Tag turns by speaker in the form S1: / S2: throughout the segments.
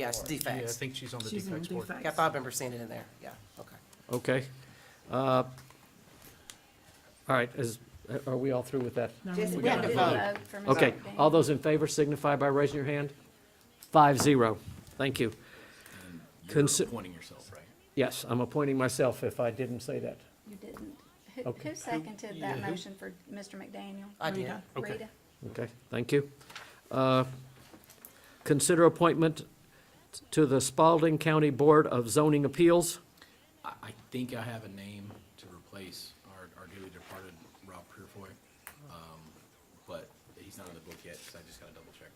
S1: Yeah, it's
S2: Yeah, I
S1: defects.
S2: think she's on the
S3: She's on
S2: defects board.
S3: defects.
S1: Yeah, I remember seeing it in there, yeah, okay.
S4: Okay. Uh, All right, is, are we all through with that?
S3: No,
S5: Just,
S3: we
S5: we have
S3: gotta
S5: to
S3: vote.
S5: vote for Mr.
S4: Okay,
S5: Bing.
S4: all those in favor signify by raising your hand. Five zero, thank you.
S2: You're
S4: Consi-
S2: appointing yourself, right?
S4: Yes, I'm appointing myself if I didn't say that.
S5: You didn't. Who,
S4: Okay.
S5: who seconded that
S2: Yeah, who-
S5: motion for Mr. McDaniel?
S1: I did.
S3: Rita.
S2: Okay.
S5: Rita?
S4: Okay, thank you. Uh, Consider appointment to the Spalding County Board of Zoning Appeals.
S2: I, I think I have a name to replace our, our dearly departed Rob Purefoy. Um, but he's not on the book yet, so I just gotta double check.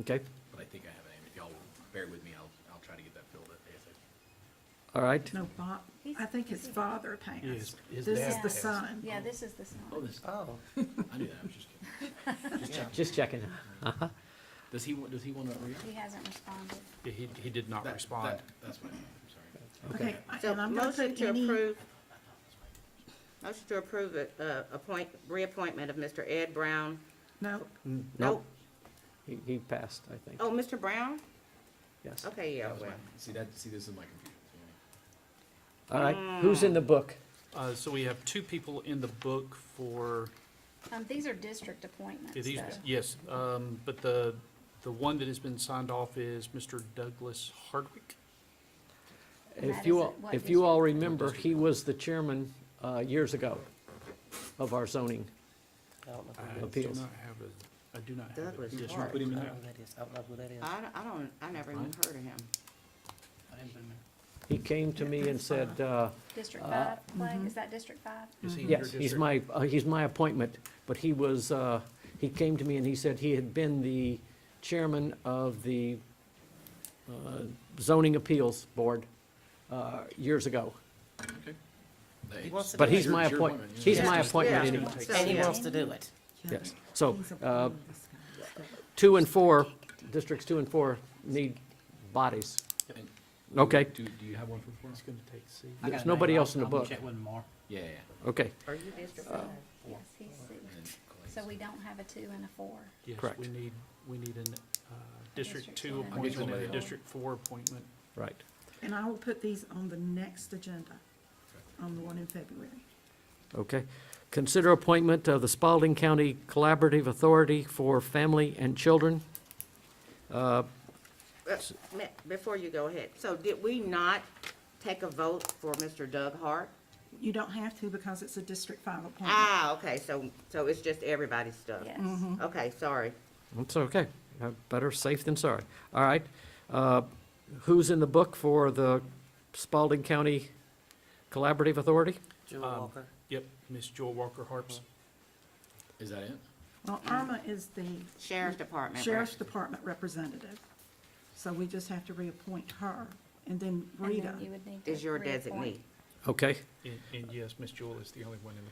S4: Okay,
S2: But I think I have a name. If y'all will bear with me, I'll, I'll try to get that filled up ASAP.
S4: all right.
S3: No, Bob, I think his father
S2: Yes,
S3: passed.
S2: his
S3: This
S2: dad
S3: is the
S2: passed.
S3: son.
S5: Yeah, this is the sign.
S2: Oh, this,
S1: Oh,
S2: I knew that, I was just kidding.
S4: Just checking.
S2: Does he, wa- does he wanna re?
S5: He hasn't responded.
S6: He, he did not
S2: that-
S6: respond.
S2: that- That's what, I'm sorry.
S3: Okay,
S7: So
S3: and I'm gonna
S7: motion
S3: put
S7: to
S3: any,
S7: approve, motion to approve it, uh, appoint, reappointment of Mr. Ed Brown. Oh,
S3: no,
S7: Nope.
S4: He- He passed, I think,
S7: Oh, Mr. Brown?
S4: yes.
S7: Okay, yeah,
S2: That was
S7: well.
S2: my- See, that, see, this is my confusion.
S4: All right, who's in the book?
S6: Uh, so we have two people in the book for,
S5: Um, these are district appointments,
S6: yeah, these,
S5: though.
S6: yes, um, but the, the one that has been signed off is Mr. Douglas Hardwick.
S5: And
S4: If
S5: that
S4: you,
S5: is
S4: all-
S5: what
S4: if you all
S5: district?
S4: remember, he was the chairman uh, years ago of our zoning.
S1: I don't know
S6: I
S1: who
S6: do
S4: Appeals.
S6: not have a, I do not have a
S7: Douglas
S6: district.
S7: Hart.
S2: Put him in
S1: I
S2: there.
S1: don't know who that is, I don't know who that is.
S7: I, I don't, I never even heard of him.
S2: I didn't put him in.
S4: He came to me and said, uh, mm-hmm.
S5: District five, Clay, is that district five?
S2: Is he in your
S4: yes, he's
S2: district?
S4: my, uh, he's my appointment, but he was, uh, he came to me and he said he had been the chairman of the uh, zoning appeals board uh, years ago.
S2: Okay. That-
S1: He wants to
S4: But
S1: do it.
S4: he's
S2: Your-
S4: my
S2: your
S4: appointment,
S2: appointment, yeah.
S4: he's my
S7: Yeah.
S4: appointment
S7: Yeah.
S4: anyway,
S7: So,
S1: And he
S7: yeah.
S1: wants to do it.
S4: yes. So
S2: Oh,
S3: he's a
S4: uh,
S3: blonde, this guy.
S4: two and four, districts two and four need bodies.
S2: And
S4: Okay,
S2: Do, do you have one for four?
S6: It's gonna take C.
S4: there's nobody else in the book.
S2: Yeah, yeah, yeah.
S4: Okay,
S7: Are you district?
S5: Yes, he's
S2: And
S5: six.
S2: then Clay's-
S5: So we don't have a two and a four.
S6: Yes,
S4: Correct.
S6: we need, we need an, uh, District
S5: District
S6: Two
S5: one.
S2: I'll get you
S6: appointment
S2: one
S6: and a
S2: later on.
S6: District Four appointment.
S4: right.
S3: And I will put these on the next agenda, on the one in February.
S4: Okay. Consider appointment of the Spalding County Collaborative Authority for Family and Children. Uh,
S7: Uh, ma- Before you go ahead, so did we not take a vote for Mr. Doug Hart?
S3: You don't have to because it's a District Five appointment.
S7: Ah, okay, so, so it's just everybody's stuff?
S5: Yes.
S4: Mm-hmm.
S7: Okay, sorry.
S4: It's okay. Uh, Better safe than sorry. All right. Uh, Who's in the book for the Spalding County Collaborative Authority?
S1: Jewel
S6: Um,
S1: Walker.
S6: Yep, Miss Joel Walker Harps.
S2: Is that it?
S3: Well, Irma is the
S7: Sheriff's Department.
S3: Sheriff's
S7: Department.
S3: Department representative, so we just have to reappoint her, and then
S5: And
S3: Rita.
S5: then you would need to
S7: Is your
S5: reappoint.
S7: designee.
S4: Okay,
S6: And, and yes, Miss Joel is the only one in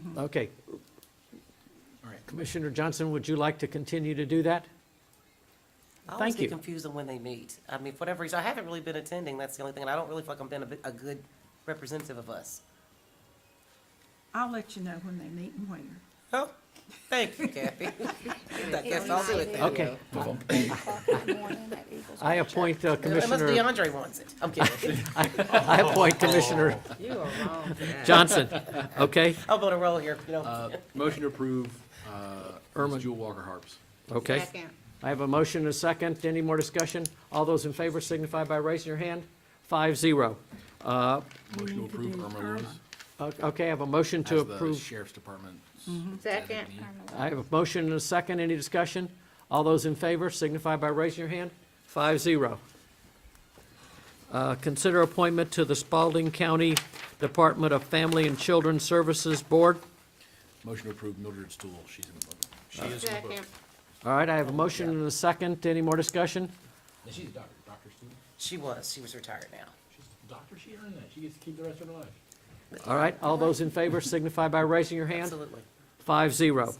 S6: the book.
S4: okay.
S2: All right.
S4: Commissioner Johnson, would you like to continue to do that?
S1: I always
S4: Thank
S1: get
S4: you.
S1: confused on when they meet. I mean, for whatever reason, I haven't really been attending, that's the only thing, and I don't really feel like I'm being a, bit- a good representative of us.
S3: I'll let you know when they meet and where.
S1: Oh, thank you, Kathy. I guess I'll do it then.
S4: Okay.
S2: Move on.
S5: Eight o'clock in the morning at Eagles
S4: I
S5: Ranch.
S4: appoint uh,
S1: Unless
S4: Commissioner,
S1: DeAndre wants it. I'm kidding.
S4: I appoint Commissioner
S7: You are wrong. today.
S4: Johnson, okay?
S1: I'm on a roll here, you know.
S2: Uh, motion to approve, uh,
S4: Irma.
S2: Ms. Jewel Walker Harps.
S4: Okay.
S7: Second.
S4: I have a motion and a second. Any more discussion? All those in favor signify by raising your hand. Five zero. Uh,
S2: Motion to
S3: need to
S2: approve
S3: do
S2: Irma
S3: Irma.
S2: Lewis
S4: o- Okay, I have a motion to
S2: as the
S4: approve.
S2: Sheriff's Department.
S7: Second.
S4: I have a motion and a second. Any discussion? All those in favor signify by raising your hand. Five zero. Uh, Consider appointment to the Spalding County Department of Family and Children Services Board.
S2: Motion to approve Mildred Stool, she's in the book.
S6: She is in the book.
S7: Second.
S4: All right, I have a motion and a second. Any more discussion?
S2: And she's a doctor, Dr. Stool.
S1: She was, she was retired now.
S2: She's a doctor, she earned that, she gets to keep the rest of her life.
S4: All right, all those in favor signify by raising your hand.
S1: Absolutely.
S4: Five zero.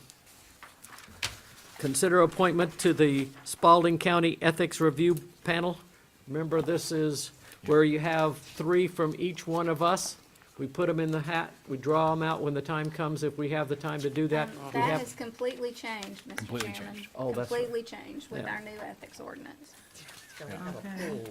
S4: Consider appointment to the Spalding County Ethics Review Panel. Remember, this is where you have three from each one of us. We put them in the hat, we draw them out when the time comes, if we have the time to do that. we
S5: Um, That
S4: have-
S5: has completely changed, Mr.
S2: Completely
S5: Chairman.
S2: changed.
S4: Oh, that's right.
S5: Completely changed with
S4: Yeah.
S5: our new ethics ordinance.
S3: So we have a
S8: Okay.
S3: pool.